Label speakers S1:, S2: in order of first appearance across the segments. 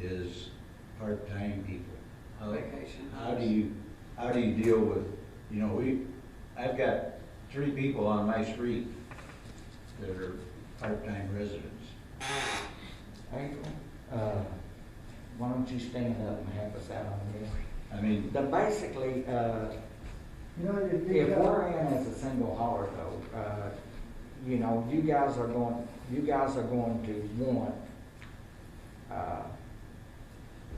S1: is part-time people. How-
S2: Vacation
S1: How do
S2: homes.
S1: you, how do you deal with, you know, we, I've got three people on my street that are part-time residents.
S3: April, uh, why don't you stand up and help us out on this?
S1: I mean,
S3: The basically, uh,
S4: You know, you, you
S3: if we're
S4: got,
S3: in as a single hauler though, uh, you know, you guys are going, you guys are going to want, uh,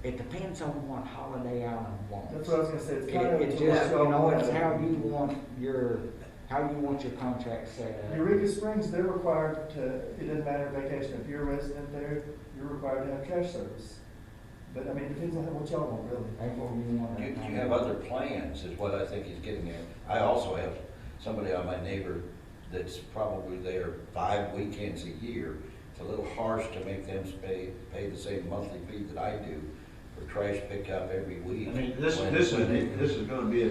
S3: it depends on what Holiday Island wants.
S4: that's what I was gonna say,
S3: It,
S4: it's kind of.
S3: it
S4: it's a
S3: just, you
S4: workout
S3: know, it's
S4: plan.
S3: how you want your, how you want your contract set up.
S4: Eureka Springs, they're required to, it doesn't matter vacation, if you're a resident there, you're required to have trash service. But I mean, it depends on what y'all want really.
S3: April, you want
S2: You,
S3: to.
S2: you have other plans, is what I think he's getting at. I also have somebody on my neighbor that's probably there five weekends a year. It's a little harsh to make them pay, pay the same monthly fee that I do for trash pickup every
S1: I
S2: week.
S1: mean, this,
S2: When-
S1: this is,
S2: when they-
S1: this is gonna be a.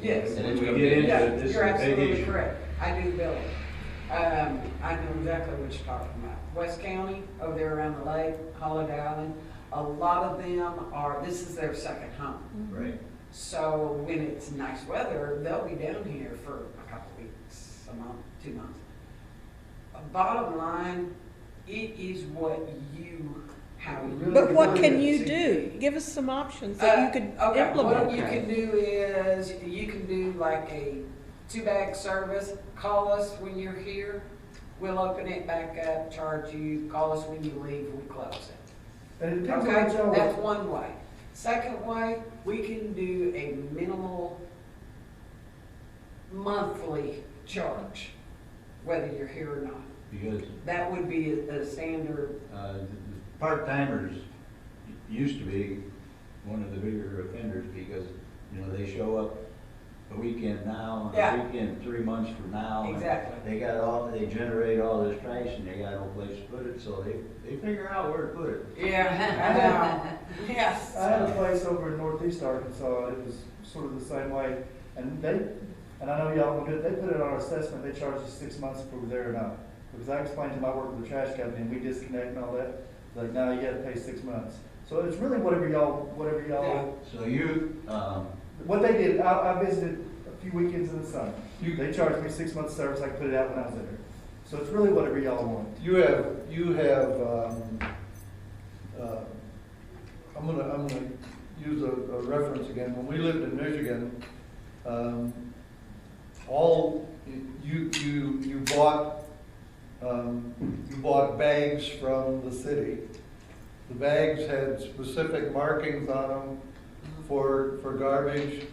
S2: Yes.
S1: When we get into
S2: Yeah,
S1: it, this is
S5: You're
S1: a big
S5: absolutely
S1: issue.
S5: correct. I do billing. Um, I know exactly what you're talking about. West County, over there around the lake, Holiday Island, a lot of them are, this is their second home.
S1: Right.
S5: So when it's nice weather, they'll be down here for a couple weeks, a month, two months. Uh, Bottom line, it is what you, how you.
S6: But what can
S5: want it
S6: you
S5: to
S6: do?
S5: be.
S6: Give us some options that
S5: Uh,
S6: you could
S5: okay, What you
S6: implement.
S5: can do is, you can do like a two-bag service, call us when you're here, we'll open it back up, charge you, call us when you leave, we close it.
S4: And it depends on
S5: Okay,
S4: what y'all
S5: that's
S4: want.
S5: one way. Second way, we can do a minimal monthly charge, whether you're here or not.
S1: Because,
S5: That would be a a standard,
S1: uh, the- the part-timers used to be one of the bigger offenders because, you know, they show up a weekend now, and a
S5: Yeah.
S1: weekend three months from now. and
S5: Exactly.
S1: They got all, they generate all this trash and they got no place to put it, so they, they figure out where to put it.
S5: yeah, I know. yes.
S4: I had a place over in northeast Arkansas, it was sort of the same way, and they, and I know y'all will do it, they put it on our assessment, they charge us six months if we were there or not. Because I explained to my work with the trash company, and we disconnect and all that, like, now you gotta pay six months. So it's really whatever y'all, whatever
S5: Yeah.
S4: y'all
S1: So you, um,
S4: What they did, I, I visited a few weekends in the summer.
S7: You-
S4: They charged me six months service, I could put it out when I was there. So it's really whatever y'all want.
S7: You have, you have, um, uh, I'm gonna, I'm gonna use a, a reference again. When we lived in Michigan, um, all, you, you, you bought, um, you bought bags from the city. The bags had specific markings on them for, for garbage.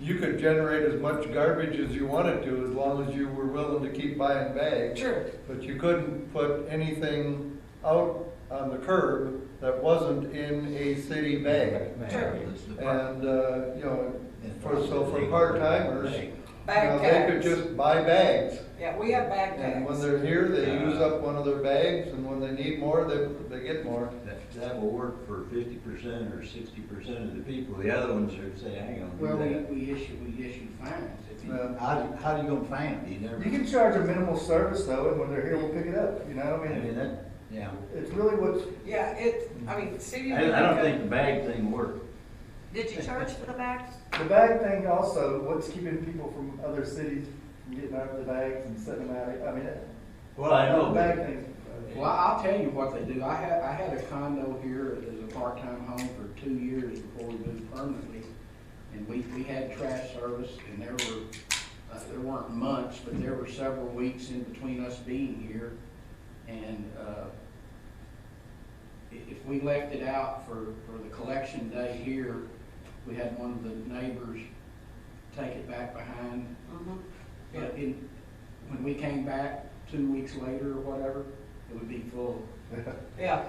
S7: You could generate as much garbage as you wanted to, as long as you were willing to keep buying bags.
S5: Sure.
S7: But you couldn't put anything out on the curb that wasn't in a city bag.
S5: Sure.
S1: it's the part-
S7: And, uh, you know, for, so for part-timers, you know,
S5: Bag
S7: they could
S5: tags.
S7: just buy bags.
S5: Yeah, we have bag
S7: And when
S5: tags.
S7: they're here, they use up one of their bags, and when they need more, they, they get more.
S1: That, that will work for fifty percent or sixty percent of the people, the other ones are saying, hang on,
S8: Well, we,
S1: do that.
S8: we issue, we issue fines if you.
S7: Uh,
S1: How, do- how do you gonna find them? You never,
S4: You can charge a minimal service though, and when they're here, we'll pick it up, you know, I
S1: I
S4: mean,
S1: mean, that, yeah.
S4: it's really what,
S5: Yeah, it, I mean, city.
S1: I, I don't think the bag thing worked.
S9: Did you charge for the bags?
S4: the bag thing also, what's keeping people from other cities from getting out of the bags and setting them out, I mean, that-
S1: Well, I know,
S4: the
S1: but-
S4: bag thing.
S8: Well, I'll tell you what they do. I had, I had a condo here as a part-time home for two years before we moved permanently. And we, we had trash service and there were, uh, there weren't months, but there were several weeks in between us being here. And, uh, i- if we left it out for, for the collection day here, we had one of the neighbors take it back behind
S5: Mhm.
S8: But in, when we came back two weeks later or whatever, it would be full.
S5: Yeah,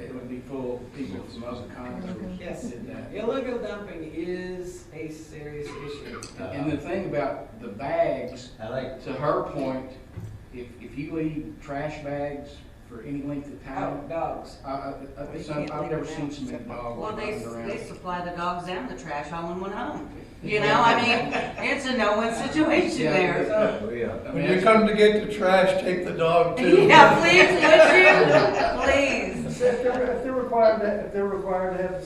S8: It would be full of people from other condos.
S5: Yes.
S8: Did that.
S5: illegal dumping is a serious issue.
S7: Uh,
S8: And the thing about the bags,
S1: I like,
S8: to her point, if, if you leave trash bags for any length of
S5: How
S8: time,
S5: dogs.
S8: I, I, I- it's un- I've never seen so many dogs
S9: Well, they,
S8: running
S9: they
S8: around.
S9: supply the dogs and the trash all in one home. You know, I mean, it's a no-win situation
S8: Yeah.
S9: there.
S1: oh, yeah.
S8: I mean,
S7: When you
S8: it's-
S7: come to get the trash, take the dog too.
S9: Yeah, please, would you? Please.
S4: If they're, if they're required, to- if they're required to have